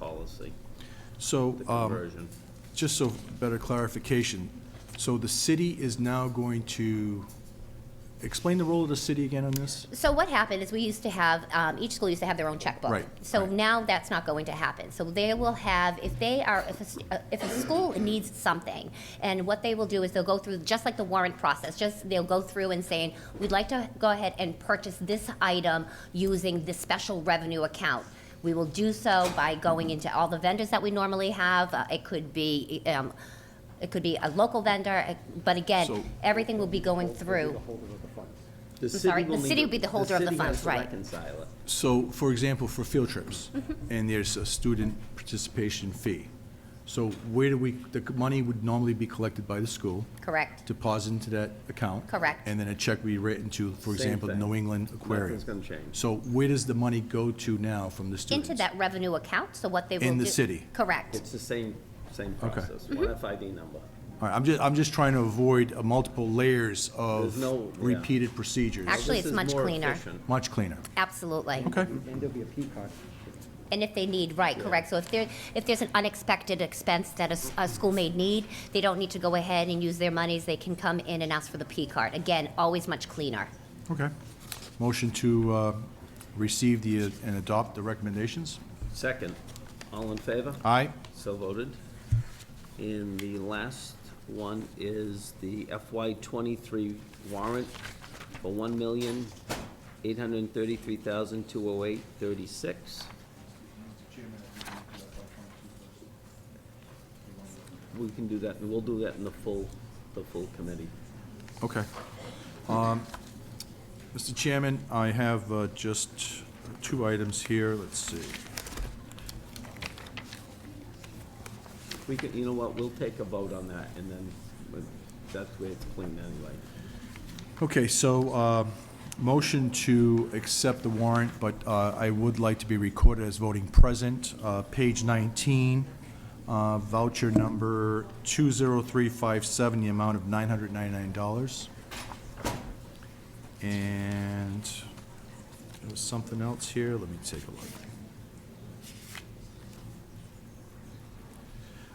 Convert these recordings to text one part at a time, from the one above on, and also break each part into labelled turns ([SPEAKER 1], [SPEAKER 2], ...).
[SPEAKER 1] policy,
[SPEAKER 2] So,
[SPEAKER 1] the
[SPEAKER 2] um,
[SPEAKER 1] conversion.
[SPEAKER 2] just so better clarification, so the city is now going to, explain the role of the city again on this?
[SPEAKER 3] So what happened is we used to have, um, each school used to have their own checkbook.
[SPEAKER 2] Right,
[SPEAKER 3] So
[SPEAKER 2] right.
[SPEAKER 3] now that's not going to happen. So they will have, if they are, if a, st- uh, if a school needs something, and what they will do is they'll go through, just like the warrant process, just, they'll go through and saying, we'd like to go ahead and purchase this item using this special revenue account. We will do so by going into all the vendors that we normally have. Uh, It could be, um, it could be a local vendor, uh, but
[SPEAKER 2] So-
[SPEAKER 3] again, everything will be going through.
[SPEAKER 1] The
[SPEAKER 3] sorry,
[SPEAKER 1] city will
[SPEAKER 3] the
[SPEAKER 1] need
[SPEAKER 3] city
[SPEAKER 1] to-
[SPEAKER 3] would be the holder of the funds, right.
[SPEAKER 1] city has to reconcile it.
[SPEAKER 2] So, for example, for field trips,
[SPEAKER 3] Mm-hmm.
[SPEAKER 2] and there's a student participation fee. So where do we, the money would normally be collected by the school,
[SPEAKER 3] Correct.
[SPEAKER 2] deposited into that account.
[SPEAKER 3] Correct.
[SPEAKER 2] And then a check be written to, for
[SPEAKER 1] Same
[SPEAKER 2] example, the
[SPEAKER 1] thing.
[SPEAKER 2] New England Aquarium.
[SPEAKER 1] Nothing's gonna change.
[SPEAKER 2] So where does the money go to now from the students?
[SPEAKER 3] Into that revenue account, so what they will do.
[SPEAKER 2] In the city.
[SPEAKER 3] Correct.
[SPEAKER 1] It's the same, same
[SPEAKER 2] Okay.
[SPEAKER 1] process,
[SPEAKER 3] Mm-hmm.
[SPEAKER 1] one FID number.
[SPEAKER 2] All right, I'm just, I'm just trying to avoid uh, multiple layers
[SPEAKER 1] There's
[SPEAKER 2] of
[SPEAKER 1] no- yeah.
[SPEAKER 2] repeated procedures.
[SPEAKER 3] Actually,
[SPEAKER 1] This is
[SPEAKER 3] it's much
[SPEAKER 1] more
[SPEAKER 3] cleaner.
[SPEAKER 1] efficient.
[SPEAKER 2] Much cleaner.
[SPEAKER 3] Absolutely.
[SPEAKER 2] Okay,
[SPEAKER 4] And there'll be a peacock.
[SPEAKER 3] And if they need, right, correct. So if there, if there's an unexpected expense that a, s- a school may need, they don't need to go ahead and use their monies. They can come in and ask for the P card. Again, always much cleaner.
[SPEAKER 2] okay. Motion to uh, receive the, uh, and adopt the recommendations.
[SPEAKER 1] Second, all in favor?
[SPEAKER 2] Aye?
[SPEAKER 1] So voted. And the last one is the FY twenty-three warrant for one million, eight hundred and thirty-three thousand, two oh eight, thirty-six. We can do that, and we'll do that in the full, the full committee.
[SPEAKER 2] Okay. Um, Mr. Um, Chairman, I have uh, just two items here, let's see.
[SPEAKER 1] We can, you know what, we'll take a vote on that, and then, but that's where it's clean anyway.
[SPEAKER 2] Okay, so, uh, motion to accept the warrant, but uh, I would like to be recorded as voting present. Uh, Page 19, uh, voucher number 20357, the amount of $999. And there was something else here, let me take a look.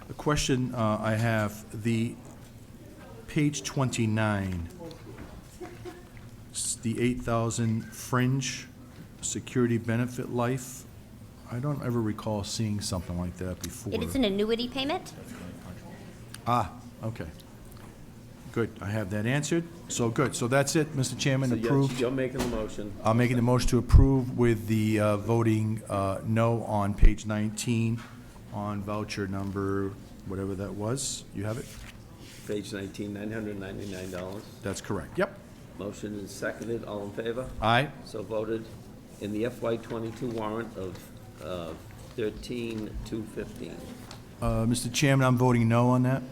[SPEAKER 2] A question uh, I have, the page 29, s- the 8,000 fringe security benefit life. I don't ever recall seeing something like that before.
[SPEAKER 3] It is an annuity payment?
[SPEAKER 2] Ah, okay. Good, I have that answered. So, good, so that's it, Mr. Chairman,
[SPEAKER 1] So you're,
[SPEAKER 2] approved.
[SPEAKER 1] you're making the motion.
[SPEAKER 2] I'm making the motion to approve with the uh, voting uh, no on page 19 on voucher number, whatever that was. You have it?
[SPEAKER 1] Page nineteen, nine hundred ninety-nine dollars.
[SPEAKER 2] That's correct. Yep.
[SPEAKER 1] Motion is seconded, all in favor?
[SPEAKER 2] Aye.
[SPEAKER 1] So voted. In the FY twenty-two warrant of, uh thirteen, two fifteen.
[SPEAKER 2] Uh, Mr. Chairman, I'm voting no on that.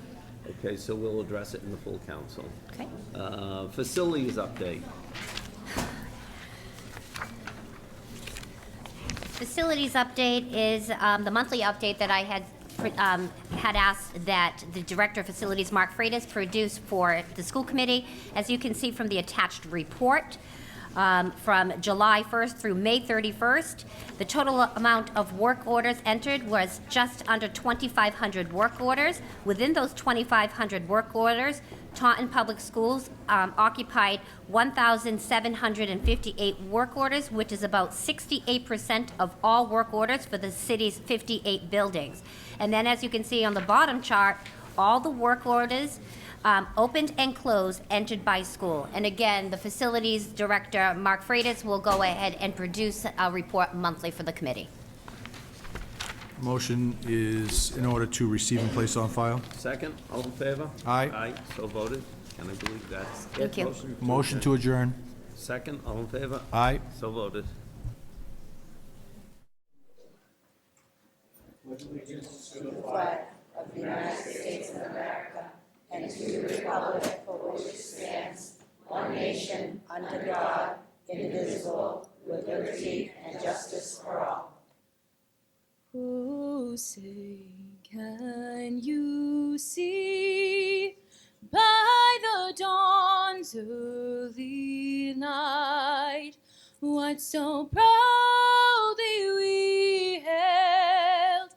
[SPEAKER 1] Okay, so we'll address it in the full council.
[SPEAKER 3] Okay.
[SPEAKER 1] Uh, facilities update.
[SPEAKER 3] Facilities update is um, the monthly update that I had, um, had asked that the Director of Facilities, Mark Freitas, produce for the school committee. As you can see from the attached report, um, from July 1st through May 31st, the total amount of work orders entered was just under 2,500 work orders. Within those 2,500 work orders, Taunton Public Schools um, occupied 1,758 work orders, which is about 68% of all work orders for the city's 58 buildings. And then, as you can see on the bottom chart, all the work orders um, opened and closed entered by school. And again, the facilities director, Mark Freitas, will go ahead and produce a report monthly for the committee.
[SPEAKER 2] Motion is in order to receive and place on file.
[SPEAKER 1] Second, all in favor?
[SPEAKER 2] Aye.
[SPEAKER 1] Aye, so voted. And I believe that's it.
[SPEAKER 3] Thank you.
[SPEAKER 2] Motion to adjourn.
[SPEAKER 1] Second, all in favor?
[SPEAKER 2] Aye.
[SPEAKER 1] So voted.
[SPEAKER 5] Oh, say, can you see by the dawn's early light what so proudly?